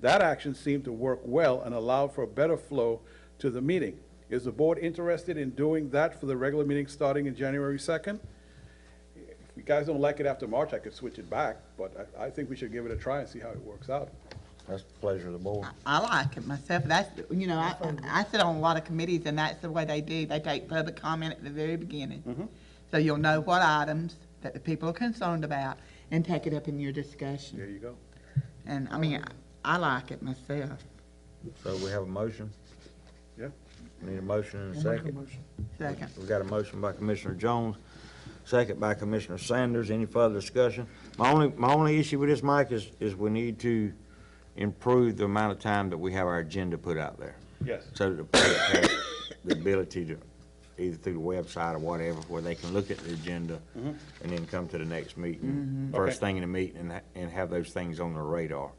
That action seemed to work well and allowed for a better flow to the meeting. Is the board interested in doing that for the regular meeting starting in January 2nd? If you guys don't like it after March, I could switch it back, but I, I think we should give it a try and see how it works out. That's the pleasure of the board. I like it myself, that's, you know, I, I sit on a lot of committees, and that's the way they do, they take public comment at the very beginning. So you'll know what items that the people are concerned about, and take it up in your There discussion. you go. And, I mean, I I like it myself, So we have a motion? Yeah. We Need a motion and a second? second. We got a motion by Commissioner Jones, second by Commissioner Sanders. Any further discussion? My only, my only issue with this, Mike, is, is we need to improve the amount of time that we have our agenda put out there. Yes. So that the public has the ability to, either through the website or whatever, where they can look at the agenda and then come to the next meeting, Mm-hmm. first Okay. thing in the meeting, and, ha- and have those things on their radar.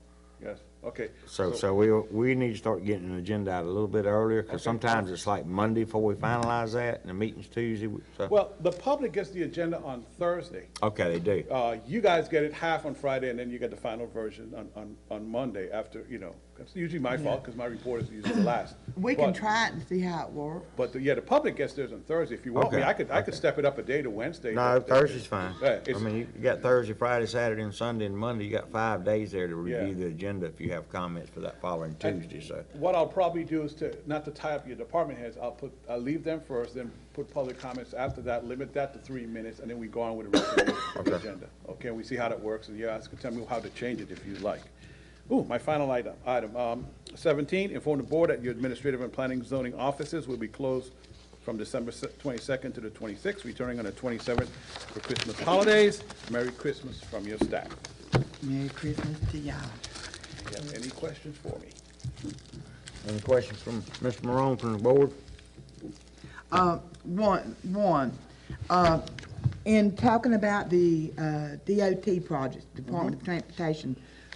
Yes, okay. So, so we, we need to start getting an agenda out a little bit earlier, Okay. because sometimes it's like Monday before we finalize that, and the meeting's Tuesday, we- so, Well, the public gets the agenda on Thursday. okay, they do. Uh, you guys get it half on Friday, and then you get the final version on, on, on Monday after, you know, that's usually my fault, because my report is usually the last. We can But- try it and see how it works. But, the- yeah, the public gets theirs on Thursday. If you want me, Okay, I could, I could okay. step it up a day to Wednesday. No, but- Thursday's fine. Yeah, I it's- mean, you you got Thursday, Friday, Saturday, and Sunday, and Monday, you got five days there to Yeah. review the agenda if you have comments for that following And Tuesday, so. What I'll probably do is to, not to tie up your department heads, I'll put, I'll leave them first, then put public comments after that, limit that to three minutes, and then we go on with the rest of the Okay. agenda. Okay, we see how that works, and you guys can tell me how to change it if you like. Ooh, my final item, item, um, seventeen, inform the board that your administrative and planning zoning offices will be closed from December twenty-second to the twenty-sixth, returning on the twenty-seventh for Christmas holidays. Merry Christmas from your staff. Merry Christmas to y'all. You have any questions for me? Any questions from Mr. Morone from the board? Uh, one, one, uh, in talking about the, uh, DOT projects, Department of Transportation,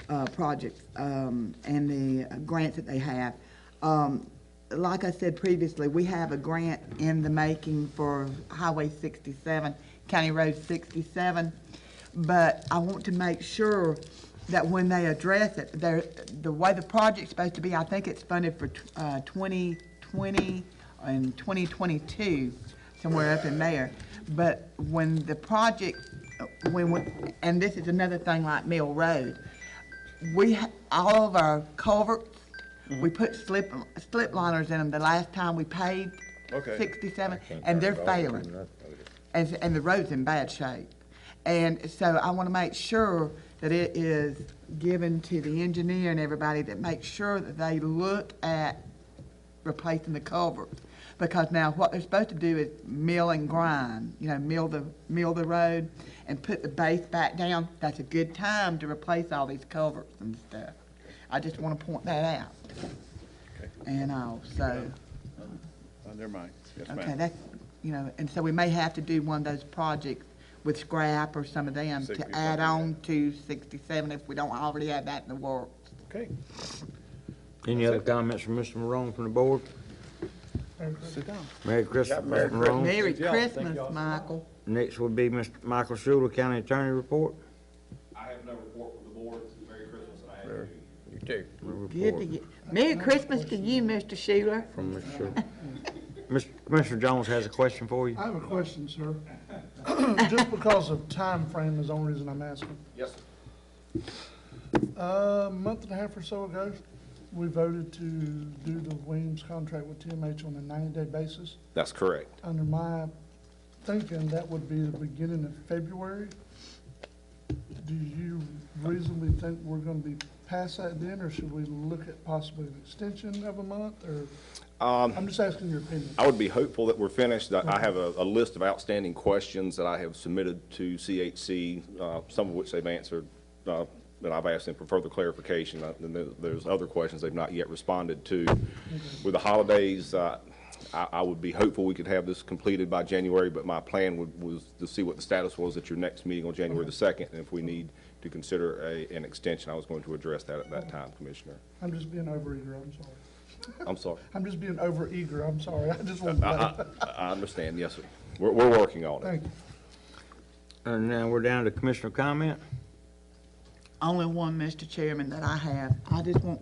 uh, projects, um, and the grants that they have, um, like I said previously, we have a grant in the making for Highway sixty-seven, County Road sixty-seven, but I want to make sure that when they address it, they're, the way the project's supposed to be, I think it's funded for, tw- uh, twenty twenty in 2022, somewhere up in there. But when the project, when, we- and this is another thing like Mill Road, we, ha- all of our culverts, we put slip, slip liners in them the last time we paved Okay. 67, and they're failing and, and the road's in bad shape. And so I want to make sure that it is given to the engineer and everybody that makes sure that they look at replacing the culverts. Because now what they're supposed to do is mill and grind, you know, mill the, mill the road and put the base back down. That's a good time to replace all these culverts and stuff. I just want to point that out. Okay. And also. On their mind, yes, ma'am. Okay, that's, you know, and so we may have to do one of those projects with scrap or some of them to 67, add yeah. on to sixty-seven if we don't already have that in the works. Okay, Any other comments from Mr. Morone from the board? sit down. Merry Christmas, Mr. Morone. Merry y'all. Thank Christmas, y'all so Michael. Next would be Mr. Michael Schuler, County Attorney Report. I have no report from the board. Merry Christmas and I have you. You too. Good to Report you. Merry Christmas to you, Mr. Schuler. from Mr. Schuler. Mr. Commissioner Jones has a question for you. I have a question, sir. Just because of time frame is the only reason I'm asking. Yes, sir. A month and a half or so ago, we voted to do the Williams contract with TMH on a 90-day basis. That's correct. Under my thinking, that would be the beginning of February. Do you reasonably think we're going to be past that then, or should we look at possibly an extension of a month, or? Um, I'm just asking your opinion. I would be hopeful that we're finished. I- I have a, a list of outstanding questions that I have submitted to CHC, uh, some of which they've answered, uh, and I've asked them for further clarification. Uh, And there- there's other questions they've not yet responded to. With the holidays, uh, I, I would be hopeful we could have this completed by January, but my plan would, was to see what the status was at your next meeting on January the second, and if we need to consider a, an extension, I was going to address that at that time, Commissioner. I'm just being overeager, I'm sorry. I'm sorry. I'm just being overeager, I'm sorry. I just want to. I, I I understand, yes, sir. We're, we're working on it. Thank you. And Uh, now we're down to commissioner comment. Only one, Mr. Chairman, that I have. I just want